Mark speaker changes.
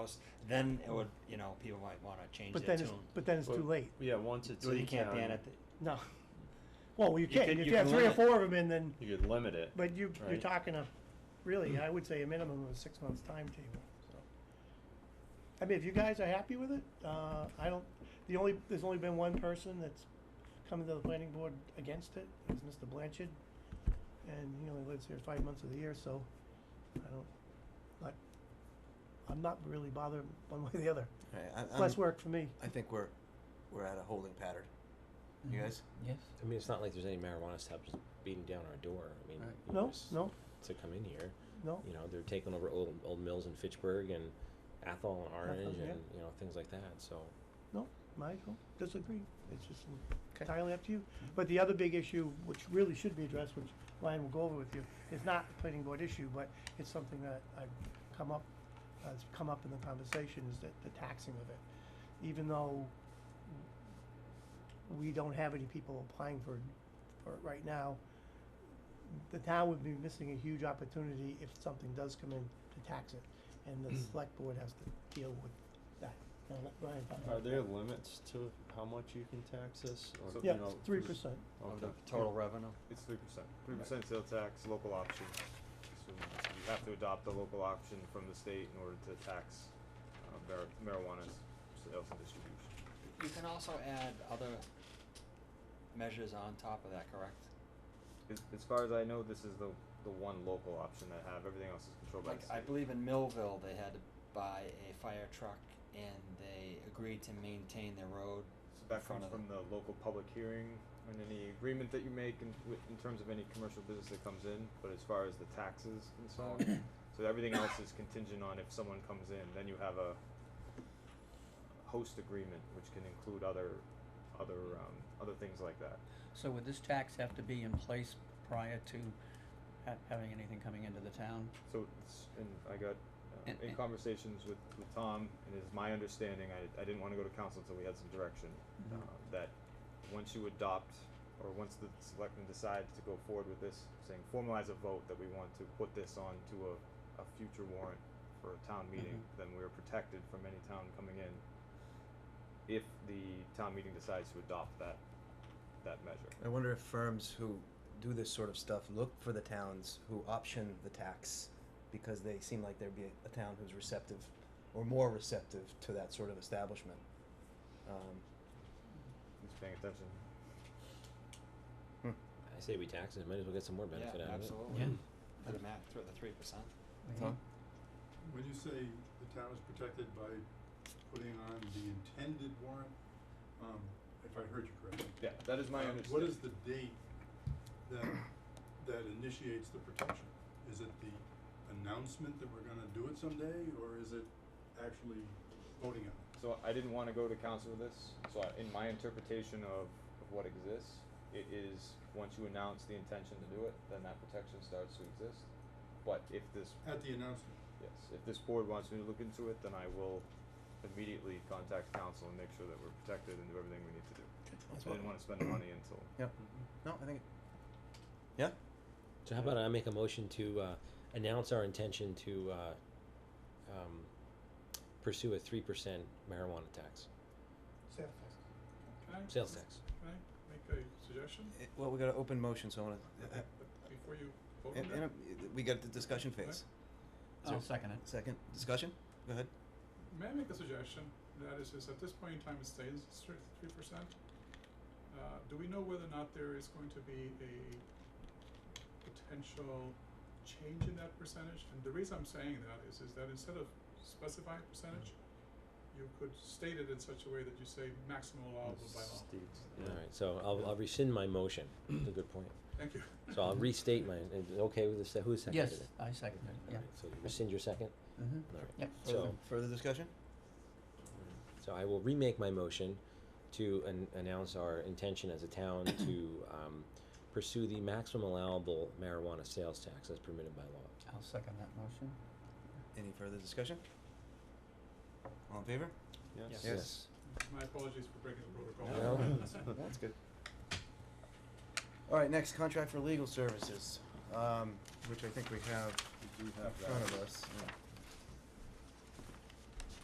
Speaker 1: house, then it would, you know, people might wanna change
Speaker 2: But
Speaker 1: their
Speaker 2: then
Speaker 1: tune.
Speaker 2: it's, but then it's
Speaker 3: But-
Speaker 2: too late.
Speaker 3: Yeah, once it's
Speaker 1: Well,
Speaker 3: in
Speaker 1: you can't
Speaker 3: town,
Speaker 1: ban it,
Speaker 2: No. Well, you can,
Speaker 1: can-
Speaker 2: if
Speaker 1: you
Speaker 2: you have
Speaker 1: can
Speaker 2: three or
Speaker 1: limit-
Speaker 2: four of them in, then,
Speaker 3: You could limit it.
Speaker 2: but you, you're
Speaker 3: Right.
Speaker 2: talking a, really,
Speaker 1: Hmm.
Speaker 2: I would say a minimum of a six months timetable, so. I mean, if you guys are happy with it, uh, I don't, the only, there's only been one person that's come to the planning board against it, it's Mr. Blanchard. And he only lives here five months of the year, so I don't, like, I'm not really bothered one way or the other,
Speaker 4: Right, I,
Speaker 2: It's
Speaker 4: I'm,
Speaker 2: less work for me.
Speaker 4: I think we're we're at a holding pattern. You guys?
Speaker 5: Yes.
Speaker 6: I mean, it's not like there's any marijuana shops just beating down our door. I mean,
Speaker 4: Right.
Speaker 6: you know,
Speaker 2: No,
Speaker 6: just
Speaker 2: no,
Speaker 6: to come in here,
Speaker 2: no,
Speaker 6: you know, they're taking over old old mills in Fitchburg and Athol and Orange
Speaker 2: yeah.
Speaker 6: and you know things like that. So
Speaker 2: no, Michael, disagree, it's just
Speaker 4: Okay.
Speaker 2: entirely up to you. But the other big issue, which really should be addressed, which Ryan will go over with you, is not a planning board issue, but it's something that I've come up, has come up in the conversation, is that the taxing of it. Even though we don't have any people applying for, for it right now, the town would be missing a huge opportunity if something does come in to tax it, and the select board has to deal with that. Now, let Ryan talk about
Speaker 3: Are
Speaker 2: that.
Speaker 3: there limits to how much you can tax this? Or,
Speaker 7: So-
Speaker 3: you
Speaker 2: Yeah,
Speaker 3: know,
Speaker 2: three
Speaker 3: is-
Speaker 2: percent.
Speaker 1: that, of
Speaker 3: Okay.
Speaker 1: the total revenue.
Speaker 7: It's three percent, three percent sales tax, local option. So you have to adopt the local option from the state in order to tax uh, mar- marijuana sales and distribution.
Speaker 1: You can also add other measures on top of that, correct?
Speaker 7: As, as far as I know, this is the, the one local option that I have, everything else is controlled by
Speaker 1: Like,
Speaker 7: the
Speaker 1: I
Speaker 7: state.
Speaker 1: believe in Millville, they had to buy a fire truck and they agreed to maintain the road.
Speaker 7: So
Speaker 1: in
Speaker 7: that
Speaker 1: front
Speaker 7: comes
Speaker 1: of
Speaker 7: from the local public hearing and any agreement that you make in, wi- in terms of any commercial business that comes in, but as far as the taxes concerned, so everything else is contingent on if someone comes in, then you have a host agreement, which can include other, other, um, other things like that.
Speaker 5: So would this tax have to be in place prior to ha- having anything coming into the town?
Speaker 7: So, it's, and I got, uh,
Speaker 5: And-
Speaker 7: in
Speaker 5: and-
Speaker 7: conversations with, with Tom, and it's my understanding, I, I didn't wanna go to council until we had some direction, uh,
Speaker 5: Mm-hmm.
Speaker 7: that once you adopt, or once the selectmen decide to go forward with this, saying formalize a vote that we want to put this on to a, a future warrant for a town meeting,
Speaker 5: Mm-hmm.
Speaker 7: then we're protected from any town coming in if the town meeting decides to adopt that, that measure.
Speaker 4: I wonder if firms who do this sort of stuff look for the towns who option the tax because they seem like there'd be a, a town who's receptive or more receptive to that sort of establishment. Um,
Speaker 7: Just paying attention.
Speaker 4: Hmm.
Speaker 6: I say we tax it. Might as well get some more benefit
Speaker 1: Yeah,
Speaker 6: out
Speaker 1: absolutely.
Speaker 5: Yeah.
Speaker 1: For the math, through the three percent.
Speaker 4: Tom?
Speaker 8: When you say the town is protected by putting on the intended warrant, um, if I heard you correctly.
Speaker 7: Yeah, that is my
Speaker 8: uh,
Speaker 7: understanding.
Speaker 8: What is the date that, that initiates the protection? Is it the announcement that we're gonna do it someday, or is it actually voting on it?
Speaker 7: So I didn't want to go to council with this. So I, in my interpretation of, of what exists, it is once you announce the intention to do it, then that protection starts to exist. But if this,
Speaker 8: At the announcement,
Speaker 7: yes, if this board wants me to look into it, then I will immediately contact council and make sure that we're protected and do everything we need to do.
Speaker 4: That's
Speaker 7: I didn't
Speaker 4: what-
Speaker 7: want to spend the money until.
Speaker 4: No, I think. Yeah.
Speaker 6: it. So how about I make a motion to uh, announce our intention to uh, um, pursue a three percent marijuana tax,
Speaker 2: Sales
Speaker 9: Can I,
Speaker 6: sales tax.
Speaker 9: can I make a suggestion
Speaker 4: Eh, well, we got an open motion, so I eh, want to.
Speaker 9: before you vote
Speaker 4: and,
Speaker 9: on
Speaker 4: and,
Speaker 9: it?
Speaker 4: uh, we got the discussion phase.
Speaker 5: I'll second it.
Speaker 4: Second discussion. Go ahead.
Speaker 9: May I make a suggestion? That is, is at this point in time, it stays three percent. Uh, do we know whether or not there is going to be a potential change in that percentage? And the reason I'm saying that is, is that instead of specifying percentage, you could state it in such a way that you say maximum allowable by law.
Speaker 6: All right. So I'll, I'll rescind my motion. That's a good point.
Speaker 9: Thank you.
Speaker 6: So I'll restate mine. Is it okay with the se- who seconded
Speaker 5: Yes,
Speaker 6: it?
Speaker 5: I second it, yeah.
Speaker 6: Alright, So you rescind your second.
Speaker 5: Mm-hmm.
Speaker 6: All right.
Speaker 5: Yep.
Speaker 6: So.
Speaker 4: Further- further discussion.
Speaker 6: So I will remake my motion to an- announce our intention as a town to um, pursue the maximum allowable marijuana sales tax as permitted by law.
Speaker 5: I'll second that motion.
Speaker 4: Any further discussion? All in favor?
Speaker 1: Yes.
Speaker 4: Yes.
Speaker 9: My apologies for breaking the protocol.
Speaker 6: No.
Speaker 4: That's good. All right, next contract for legal services, um, which I think we have
Speaker 7: We do
Speaker 4: in
Speaker 7: have
Speaker 4: front
Speaker 7: that.
Speaker 4: of us.
Speaker 7: Yeah.